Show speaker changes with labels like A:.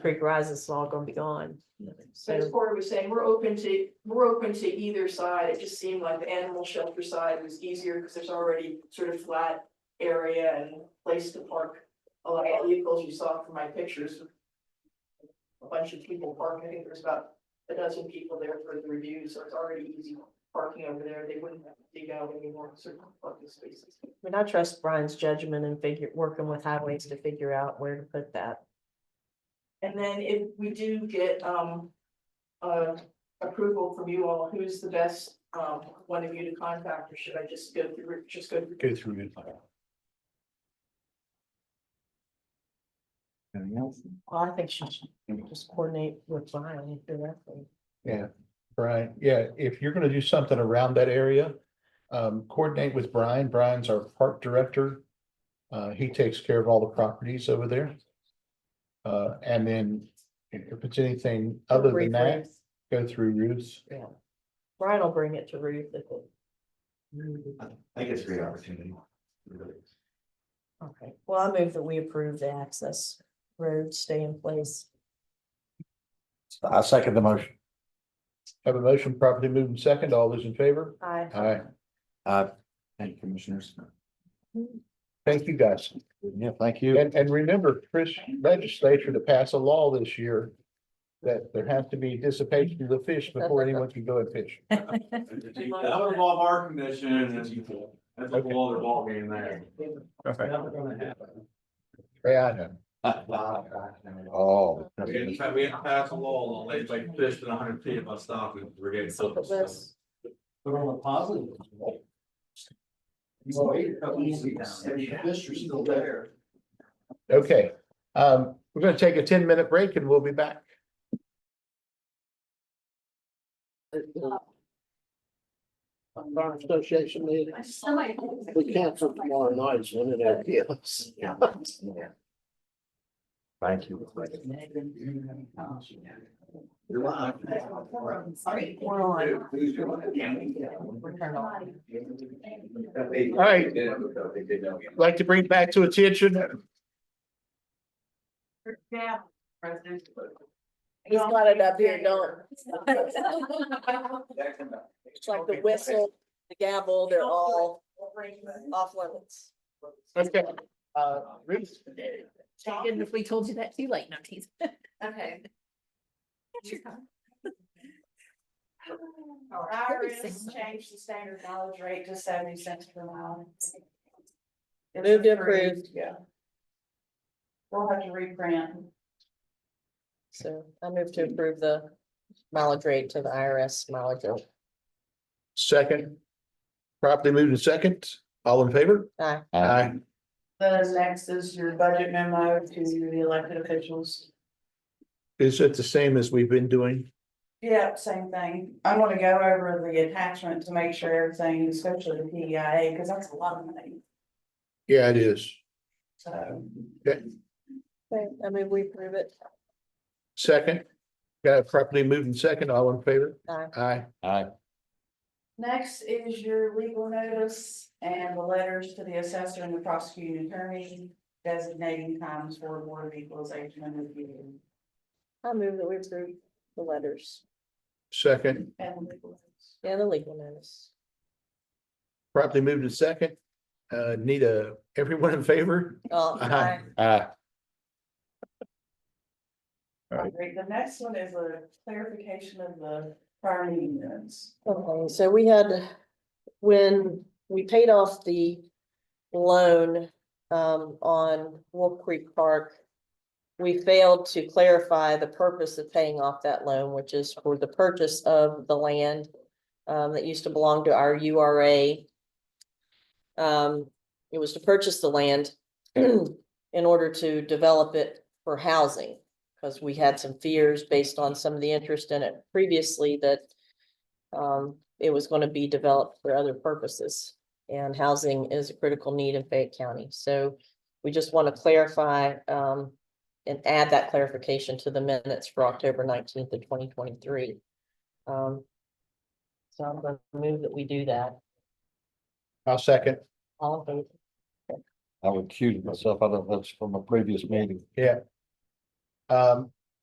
A: Creek Rise is all gonna be gone.
B: So as
A: So,
B: Corey was saying, we're open to, we're open to either side. It just seemed like the animal shelter side was easier because there's already sort of flat area and place to park. A lot of vehicles you saw from my pictures. A bunch of people parking. I think there's about a dozen people there for the review, so it's already easy parking over there. They wouldn't have to dig out any more certain parking spaces.
A: I mean, I trust Brian's judgment and figure, working with highways to figure out where to put that.
B: And then if we do get um. Uh, approval from you all, who's the best um one of you to contact, or should I just go through, just go through?
C: Go through it. Anything else?
A: Well, I think she should just coordinate with Brian directly.
C: Yeah, Brian, yeah, if you're gonna do something around that area, um, coordinate with Brian. Brian's our park director. Uh, he takes care of all the properties over there. Uh, and then if it's anything other than that,
A: Briefly.
C: go through Ruth's.
A: Yeah. Brian will bring it to Ruth if it.
D: I think it's a great opportunity. Really.
A: Okay, well, I move that we approve the access road stay in place.
E: I second the motion.
C: Have a motion properly moved and second. All those in favor?
A: I,
C: Aye.
E: Uh, thank you, commissioners.
C: Thank you, guys.
E: Yeah, thank you.
C: And, and remember, Chris, legislature to pass a law this year that there has to be dissipation of the fish before anyone can go and fish.
F: That would involve our commission and that's that's a whole other ballgame there.
C: Yeah, I know.
E: Oh.
F: We had to pa- we had to pass a law on lakes like fish than hundred feet of us stopping, we're getting so.
A: But let's-
D: But on a positive. note, You wait a couple of weeks, and the fish are still there.
C: Okay, um, we're gonna take a ten minute break and we'll be back.
G: Bar Association meeting. We canceled tomorrow night, so it is. Yes.
E: Thank you.
D: You're live.
B: Sorry.
A: We're on.
D: Please, you're live. All
C: right. I'd Like to bring back to attention,
B: Yeah. President.
A: He's got it up here, don't. It's like the whistle, the gavel, they're all off limits.
C: okay, uh, Ruth,
H: And if we told you that too late, no tease.
B: Okay.
H: Iris
B: changed the standard mileage rate to seventy cents per mile.
A: Move to approve.
B: Yeah. We'll have to reprint.
A: So I move to approve the mileage rate to the IRS mileage. rate.
C: second. Properly moved in second, all in favor?
A: Aye.
C: Aye.
B: The next is your budget memo to the elected officials.
C: Is it the same as we've been doing?
B: Yeah, same thing. I'm gonna go over the attachment to make sure everything, especially the PEIA, because that's a lot of money,
C: Yeah, it is.
B: so.
A: Okay, I mean, we approve it.
C: Second, got it properly moved in second, all in favor?
A: Aye.
C: Aye.
E: Aye.
B: Next is your legal notice and the letters to the assessor and the prosecuting attorney designating times for board of equalization and review.
A: I move that we approve the letters
C: Second,
B: And legal notice.
A: and the legal notice.
C: properly moved in second, uh, need a, everyone in favor?
A: Oh,
C: Aye.
E: Aye.
C: Right.
B: Great, the next one is a clarification of the prior meeting minutes.
A: Okay, so we had, when we paid off the loan um on Wolf Creek Park. We failed to clarify the purpose of paying off that loan, which is for the purchase of the land um, that used to belong to our U R A. Um, it was to purchase the land in order to develop it for housing. Because we had some fears based on some of the interest in it previously that um, it was gonna be developed for other purposes. And housing is a critical need in Fayette County, so we just want to clarify, um, and add that clarification to the minutes for October nineteenth of twenty twenty-three. Um, so I'm gonna move that we do that,
C: I'll second,
A: all in favor?
E: I would accuse myself out of this from a previous meeting.
C: um,